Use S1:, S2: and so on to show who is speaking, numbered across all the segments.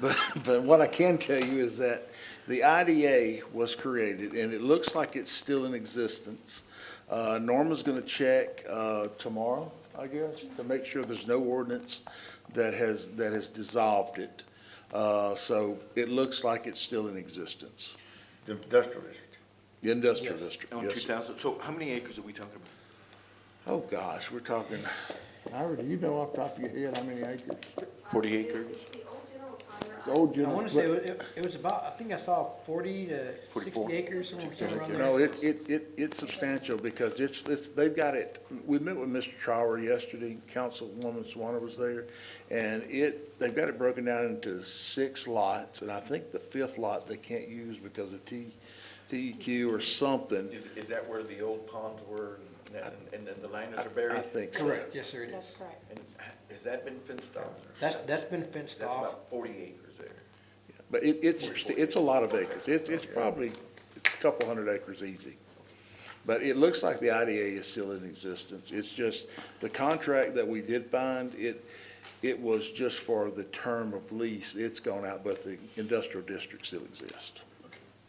S1: But, but what I can tell you is that the IDA was created, and it looks like it's still in existence. Uh, Norma's gonna check, uh, tomorrow, I guess, to make sure there's no ordinance that has, that has dissolved it. Uh, so it looks like it's still in existence,
S2: The industrial district.
S1: the industrial
S3: Yes,
S1: district.
S3: On
S1: Yes,
S3: two
S1: sir.
S3: thousand, so how many acres are we talking about?
S1: Oh, gosh, we're talking, Ira, do you know off the top of your head how many acres?
S3: Forty acres?
S4: It's the old general fund, they're
S1: The old
S5: I
S1: general-
S5: wanna say it, it- it was about, I think I saw forty to
S3: 44.
S5: sixty acres, somewhere somewhere around there.
S1: No, it, it, it, it's substantial because it's, it's, they've got it, we met with Mr. Trower yesterday, Councilwoman Swanner was there, and it, they've got it broken down into six lots, and I think the fifth lot they can't use because of T, TEQ or something.
S6: Is, is that where the old ponds were and- and, and the liners are
S1: I
S6: buried?
S1: think so.
S5: Correct, yes, sir, it
S4: That's
S5: is.
S4: correct.
S6: And has that been fenced off?
S5: That's, that's been fenced
S6: That's
S5: off.
S6: about forty acres there.
S1: But it, it's, it's a lot of acres. It's, it's probably a couple hundred acres easy. But it looks like the IDA is still in existence. It's just, the contract that we did find, it, it was just for the term of lease. It's gone out, but the industrial district still exists.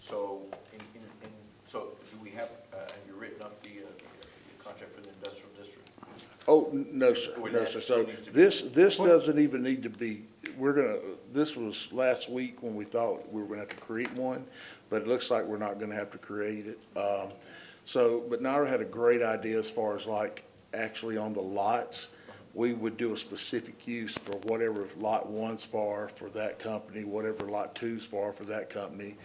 S6: So, in, in, in, so do we have, uh, have you written up the, uh, the contract for the industrial district?
S1: Oh, n- no, sir,
S6: Well,
S1: no,
S6: that
S1: sir.
S6: still
S1: So
S6: needs to be-
S1: this, this doesn't even need to be, we're gonna, this was last week when we thought we were gonna have to create one, but it looks like we're not gonna have to create it. Um, so, but Nara had a great idea as far as like, actually on the lots, we would do a specific use for whatever lot one's for, for that company, whatever lot two's for, for that company,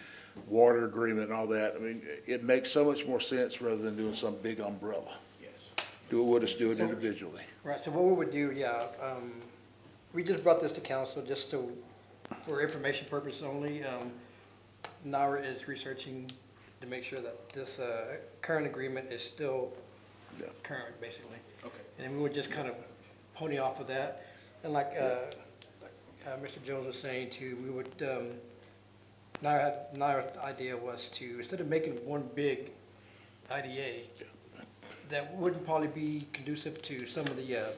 S1: water agreement and all that. I mean, it makes so much more sense rather than doing some big umbrella.
S6: Yes.
S1: Do it, we'll just do it individually.
S5: Right, so what we would do, yeah, um, we just brought this to council just so, for information purposes only. Um, NARA is researching to make sure that this, uh, current agreement is still
S1: Yeah.
S5: current, basically.
S6: Okay.
S5: And we would just kind of pony off of that. And like, uh, uh, Mr. Jones was saying too, we would, um, NARA, NARA's idea was to, instead of making one big IDA, that wouldn't probably be conducive to some of the, uh,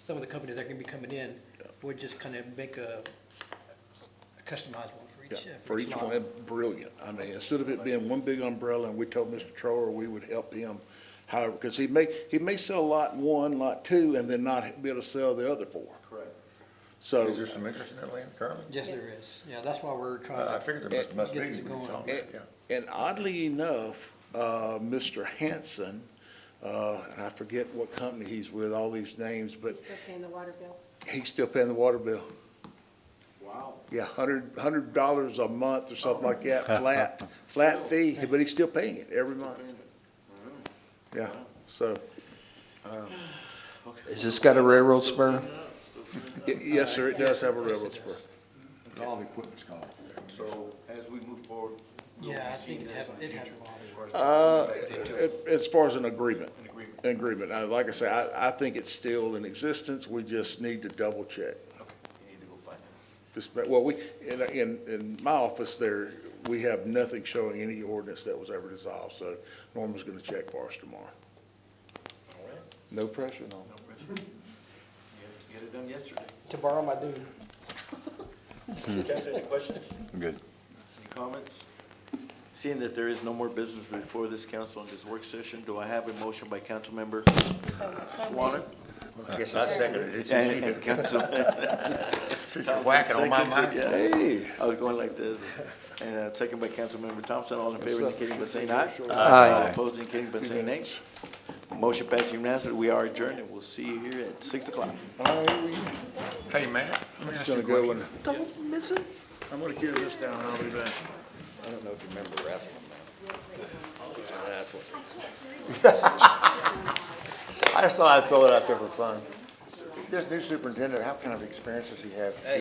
S5: some of the companies that are gonna be coming in. Would just kind of make a a customized one for
S1: Yeah,
S5: each. uh,
S1: for each
S5: model.
S1: one, brilliant. I mean, instead of it being one big umbrella, and we told Mr. Trower we would help him however, because he may, he may sell lot one, lot two, and then not be able to sell the other four.
S6: Correct.
S1: So,
S2: Is there some interest in that land currently? Uh,
S5: Yes, there is. Yeah, that's why we're trying
S1: Uh,
S2: I I
S5: to,
S2: figured there must, must be,
S5: Get
S2: we
S5: it
S2: were
S5: going.
S2: talking about,
S1: and,
S2: yeah.
S1: and oddly enough, uh, Mr. Hanson, uh, and I forget what company he's with, all these names,
S4: We're
S1: but
S4: still paying the water bill.
S1: he's still paying the water bill.
S6: Wow.
S1: Yeah, hundred, hundred dollars a month or something like that, flat, flat fee, but he's still paying it every month. Yeah, so.
S7: Has this got a railroad spur?
S1: Y- Yes, sir, it does have a railroad spur.
S2: All the equipment's gone.
S6: So as we move forward. we'll
S5: Yeah, I
S6: be seeing
S5: think it
S6: this
S5: hap-
S6: in the
S5: it
S6: future
S5: happened.
S6: as
S1: Uh,
S6: far as-
S1: a- As far as an agreement.
S6: An agreement.
S1: An agreement. Uh, Like I say, I, I think it's still in existence. We just need to double check.
S6: Okay, You need to go find it.
S1: Just, well, we, in, in, in my office there, we have nothing showing any ordinance that was ever dissolved, so Norman's gonna check for us tomorrow.
S6: All right,
S1: No pressure, no.
S6: no pressure. Get it- Get it done yesterday.
S5: to borrow my dude.
S6: Guys, any questions?
S7: Good.
S6: Any comments? Seeing that there is no more business before this council in this work session, do I have a motion by Councilmember Swanner?
S2: I guess I seconded it, since you
S6: And and
S2: did-
S6: Council,
S2: since you're whacking on my
S6: Thompson
S2: mind.
S6: seconds it, yeah. I was going like this. And uh, second by Councilmember Thompson, all in favor indicating by saying aye. All opposed indicating by saying nay. Motion passed unanimously. We are adjourned, and we'll see you here at six o'clock.
S2: Hey, Matt, let me
S1: It's
S2: ask you
S1: gonna
S2: a
S1: go
S2: question.
S1: in. Don't miss it. I'm gonna carry this down, and I'll be back.
S7: I don't know if you remember wrestling, man. That's what.
S2: I just thought I'd throw it out there for fun. This new superintendent, how kind of experience does he have?